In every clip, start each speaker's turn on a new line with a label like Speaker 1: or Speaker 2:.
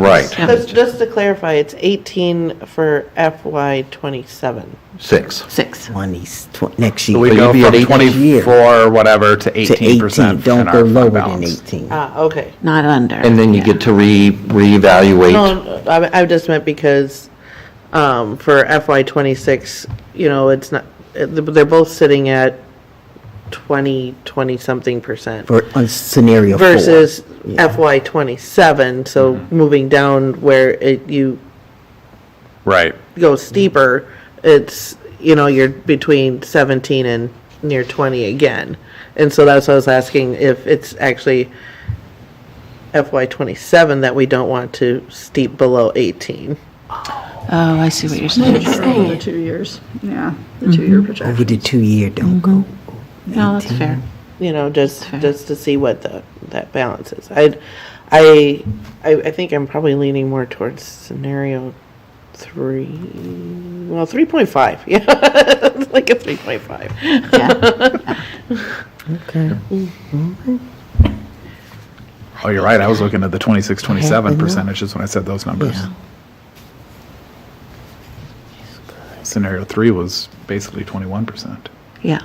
Speaker 1: Right,
Speaker 2: So Just to clarify, it's 18 for FY '27.
Speaker 1: six.
Speaker 3: Six.
Speaker 4: 20, tw- next year.
Speaker 5: So we
Speaker 4: You'd
Speaker 5: go
Speaker 4: be at
Speaker 5: from
Speaker 4: eight next year
Speaker 5: 24, whatever, to
Speaker 4: To 18,
Speaker 5: 18% in
Speaker 4: don't
Speaker 5: our
Speaker 4: go
Speaker 5: fund
Speaker 4: lower than
Speaker 5: balance.
Speaker 4: 18.
Speaker 2: Ah, okay.
Speaker 3: Not under.
Speaker 1: And then you get to re, reevaluate.
Speaker 2: No, I, I just meant because, um, for FY twenty-six, you know, it's not, it- they're both sitting at twenty, twenty-something percent
Speaker 4: For, on scenario four.
Speaker 2: versus FY twenty-seven, so moving down where it, you
Speaker 5: Right.
Speaker 2: go steeper, it's, you know, you're between seventeen and near twenty again. And so that's what I was asking, if it's actually FY twenty-seven that we don't want to steep below eighteen.
Speaker 3: Oh, I see what you're saying.
Speaker 6: Over the two years, yeah, the two-year projection.
Speaker 4: Over the two-year, don't go.
Speaker 3: No, that's fair.
Speaker 2: you know, just, just to see what the, that balance is. I'd, I, I, I think I'm probably leaning more towards scenario three, well, three point five, yeah, It's like a three point five.
Speaker 5: Oh, you're right. I was looking at the 26, 27 percentages when I said those numbers. Scenario three was basically 21%.
Speaker 3: Yeah.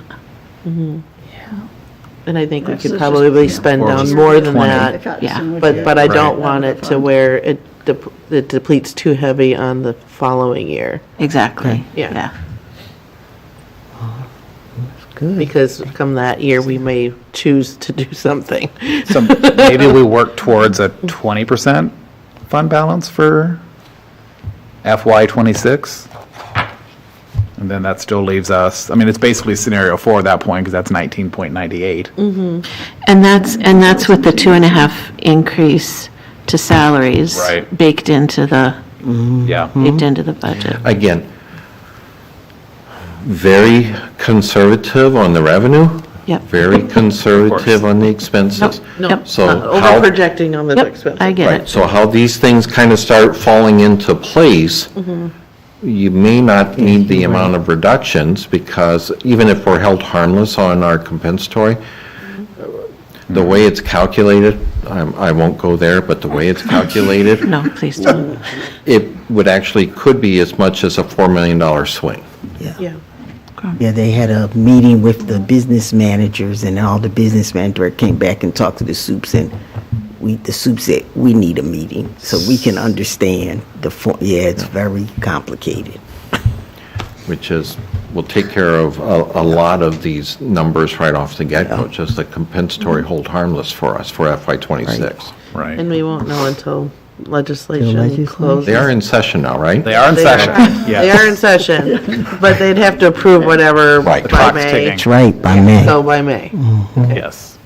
Speaker 2: And I think we
Speaker 6: So
Speaker 2: could
Speaker 6: it's
Speaker 2: probably
Speaker 6: just, yeah.
Speaker 2: spend
Speaker 5: Or
Speaker 2: down
Speaker 5: just
Speaker 2: more than
Speaker 5: 20.
Speaker 2: that,
Speaker 6: Cut some would
Speaker 2: but,
Speaker 6: be-
Speaker 2: but I
Speaker 5: Right.
Speaker 2: don't want it to
Speaker 6: Fund.
Speaker 2: where it, dep- it depletes too heavy on the following year,
Speaker 3: Exactly.
Speaker 2: Yeah.
Speaker 4: Good.
Speaker 2: because come that year, we may choose to do something.
Speaker 5: So maybe we work towards a 20% fund balance for FY '26? And then that still leaves us, I mean, it's basically scenario four at that point because that's 19.98.
Speaker 3: And that's, and that's with the two and a half increase to salaries.
Speaker 5: Right.
Speaker 3: Baked into the,
Speaker 5: Yeah.
Speaker 1: Mm-hmm.
Speaker 3: baked into the budget.
Speaker 1: Again, very conservative on the revenue,
Speaker 3: Yep.
Speaker 1: very conservative on the expenses.
Speaker 3: Yep.
Speaker 1: So how-
Speaker 2: Over projecting on the
Speaker 3: Yep,
Speaker 2: expenses.
Speaker 3: I get
Speaker 1: Right,
Speaker 3: it.
Speaker 1: so how these things kind of start falling into place, you may not need the amount of reductions, because even if we're held harmless on our compensatory, the way it's calculated, I'm- I won't go there, but the way it's calculated,
Speaker 3: No, please don't.
Speaker 1: it would actually, could be as much as a $4 million swing.
Speaker 2: Yeah.
Speaker 4: Yeah, they had a meeting with the business managers and all the business manager came back and talked to the soups and we, the soup said, we need a meeting so we can understand the, fo- yeah, it's very complicated.
Speaker 1: which is, will take care of a, a lot of these numbers right off the get-go, just the compensatory hold harmless for us for FY '26.
Speaker 2: And
Speaker 5: Right.
Speaker 2: we won't know until
Speaker 4: Till
Speaker 2: legislation
Speaker 4: legislation.
Speaker 2: closes.
Speaker 1: They are in session now, right?
Speaker 5: They are in
Speaker 2: They are.
Speaker 5: session.
Speaker 2: They
Speaker 5: Yeah.
Speaker 2: are in session, but they'd have to approve whatever
Speaker 1: Right. The
Speaker 2: by
Speaker 5: clock's
Speaker 2: May.
Speaker 5: ticking.
Speaker 4: That's right, by May.
Speaker 2: So by May.
Speaker 5: Yes.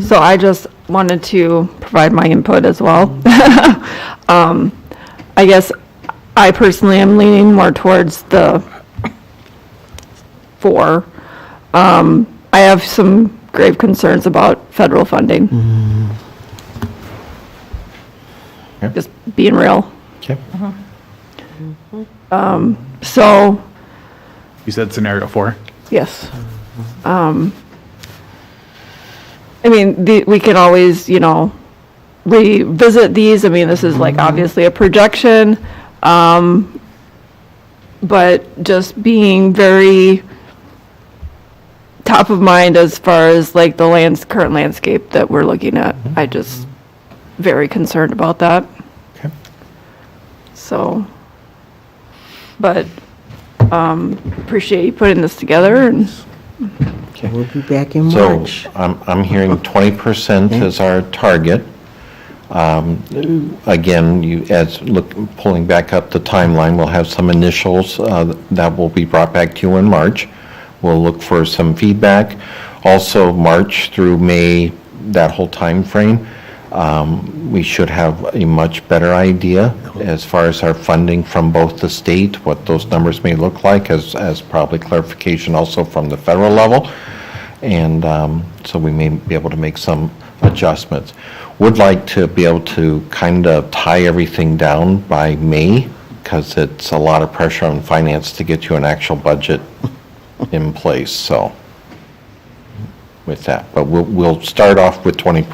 Speaker 6: So I just wanted to provide my input as well. Um, I guess I personally am leaning more towards the four. Um, I have some grave concerns about federal funding.
Speaker 1: Yeah.
Speaker 6: Just being real. Um,
Speaker 1: Okay.
Speaker 6: So,
Speaker 5: You said scenario four?
Speaker 6: Yes. Um, I mean, the, we can always, you know, revisit these. I mean, this is like obviously a projection. Um, but just being very top of mind as far as like the lands, current landscape that we're looking at. I just very concerned about that.
Speaker 5: Okay.
Speaker 6: So, but, um, appreciate you putting this together and
Speaker 4: We'll be back in
Speaker 1: So
Speaker 4: March.
Speaker 1: I'm, I'm hearing 20% is our target. Um, Again, you, as, look, pulling back up the timeline, we'll have some initials uh, that will be brought back to you in March. We'll look for some feedback. Also, March through May, that whole timeframe, um, we should have a much better idea as far as our funding from both the state, what those numbers may look like, as, as probably clarification also from the federal level. And um, so we may be able to make some adjustments. Would like to be able to kind of tie everything down by May, because it's a lot of pressure on finance to get you an actual budget in place, so with that. But we'll, we'll start off with 20%.